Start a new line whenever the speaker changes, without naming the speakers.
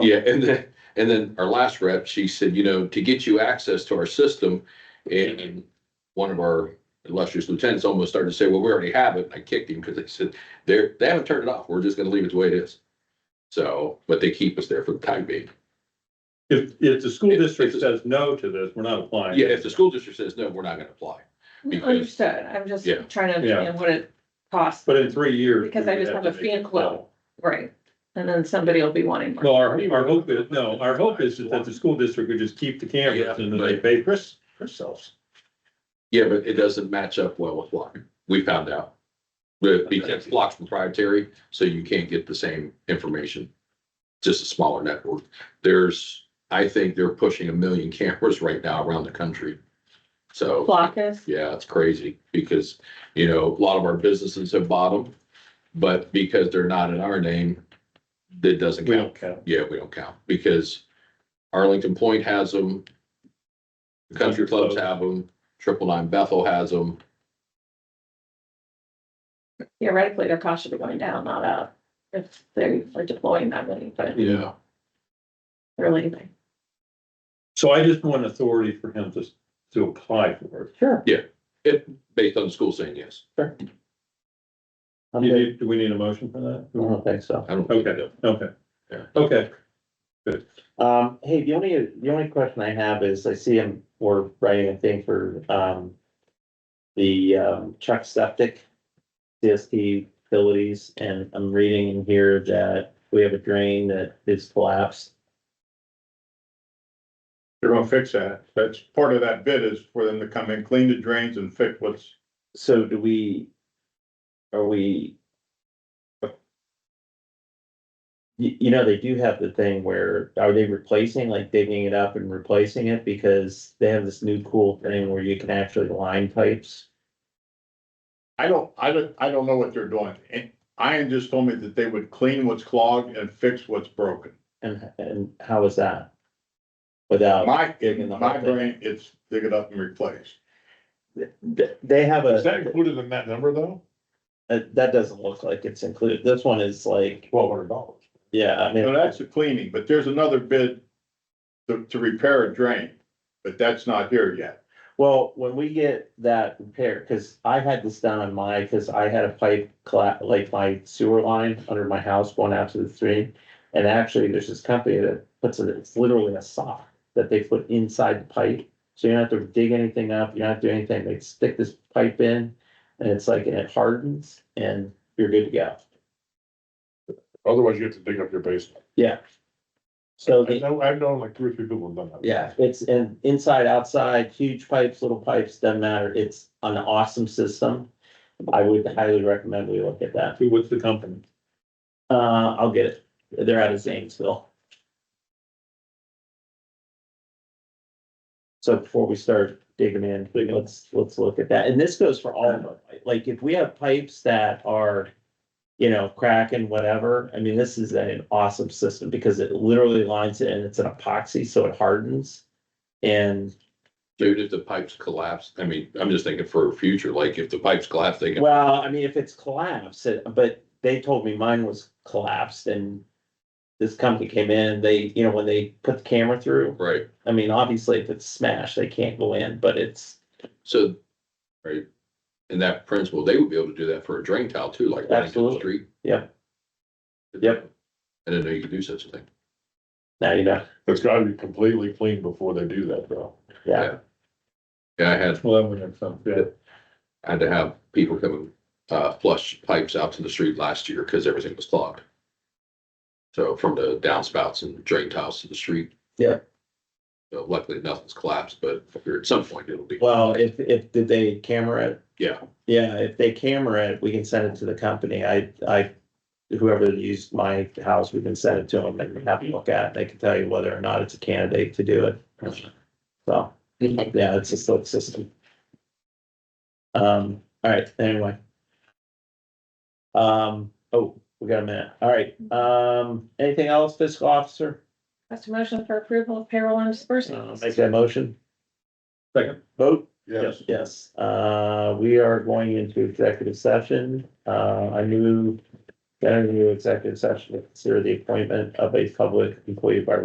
Yeah, and then, and then our last rep, she said, you know, to get you access to our system, and one of our illustrious lieutenants almost started to say, well, we already have it, and I kicked him, because they said, they're, they haven't turned it off, we're just gonna leave it the way it is. So, but they keep us there for the time being.
If, if the school
If- if
district
the-
says no to this, we're not applying.
Yeah, if the school district says, no, we're not gonna apply. Because-
Understood, I'm just
Yeah.
trying to
Yeah.
understand what it costs,
But in three years.
Because
we
I just
would
have a
to make
fan club. right? And then somebody will be wanting
No,
more.
our, our hope is, no, our hope is that the school district would just keep the cameras
Yeah,
and then they
but-
pay Chris, Chris sells.
Yeah, but it doesn't match up well with Block, we found out. But because Block's proprietary, so you can't get the same information. Just a smaller network. There's, I think they're pushing a million cameras right now around the country. So.
Block is,
Yeah, it's crazy because, you know, a lot of our businesses have bought them, but because they're not in our name, that doesn't
We
count.
don't count.
Yeah, we don't count because Arlington Point has them. the Country clubs have them, triple nine Bethel has them.
theoretically, their cost should be going down, not up, if they are deploying that many, but
Yeah.
really, they-
So I just want authority for him to, to apply for it.
Sure.
Based on the school saying yes.
I'm
You
good.
need- Do we need a motion for
I
that?
don't think so.
I don't. think
Okay,
that-
okay.
Yeah.
Okay,
Um, hey, the only, the only question I have is I see him, we're writing a thing for, um, the, um, Chuck Septic, CST utilities, and I'm reading in here that we have a drain that is collapsed.
They're gonna fix that. That's part of that bid is for them to come in, clean the drains and fix what's,
So do we, are we? You, you know, they do have the thing where, are they replacing, like digging it up and replacing it? Because they have this new cool thing where you can actually line pipes.
I don't, I don't, I don't know what they're doing. And Ian just told me that they would clean what's clogged and fix what's broken.
And, and how is that? Without,
My,
Digging the
my
whole thing.
brain, it's dig it up and replace.
th- they have a,
included in that number though?
uh, that doesn't look like it's included. This one is like,
Twelve hundred dollars.
yeah, I
So
mean,
that's the cleaning, but there's another bid to, to repair a drain, but that's not here yet.
well, when we get that repaired, cause I had this done on my, cause I had a pipe colla- like my sewer line under my house going out to the stream. And actually, there's this company that puts it, it's literally a sock that they put inside the pipe. So you don't have to dig anything up, you don't have to do anything, they stick this pipe in and it's like, and it hardens and you're good to go.
Otherwise, you have to dig up your basement.
So
I
the
know, I've known like three or three people who've done that.
Yeah, it's in inside, outside, huge pipes, little pipes, doesn't matter. It's an awesome system. I would highly recommend we look at that.
Who, what's the company?
Uh, I'll get it. They're out of Zanesville. So before we start digging in, let's, let's look at that. And this goes for all of them. Like if we have pipes that are, you know, cracking, whatever, I mean, this is an awesome system because it literally lines it and it's an epoxy, so it hardens. And
Dude, if the pipes collapse, I mean, I'm just thinking for future, like if the pipes collapse, they can,
Well, I mean, if it's collapsed, it- but they told me mine was collapsed and this company came in, they, you know, when they put the camera through,
right?
I mean, obviously if it's smashed, they can't go in, but it's,
So, right? And that principle, they would be able to do that for a drain tile too, like running down the
Absolutely.
street.
Yep. Yep.
I didn't know you could do such a thing.
now you know,
It's gotta be completely clean before they do that, though.
yeah.
Yeah, I had
Well, that would have some, yeah.
I had to have people come and uh, flush pipes out to the street last year because everything was clogged. So from the downspouts and drain tiles to the street.
Yeah.
So luckily nothing's collapsed, but here at some point it'll be.
Well, if, if, did they camera it?
Yeah.
Yeah, if they camera it, we can send it to the company. I, I, whoever used my house, we can send it to them and have them look at it. They can tell you whether or not it's a candidate to do it. So. Yeah, it's a slick system. Um, all right, anyway. Um, oh, we got a minute. All right, um, anything else, fiscal officer?
that's a motion for approval of payroll and
Uh,
disbursements.
Make that motion.
Second.
Vote?
Yes.
Yes, uh, we are going into executive session. Uh, I move Enter into executive session to consider the appointment of a public employee by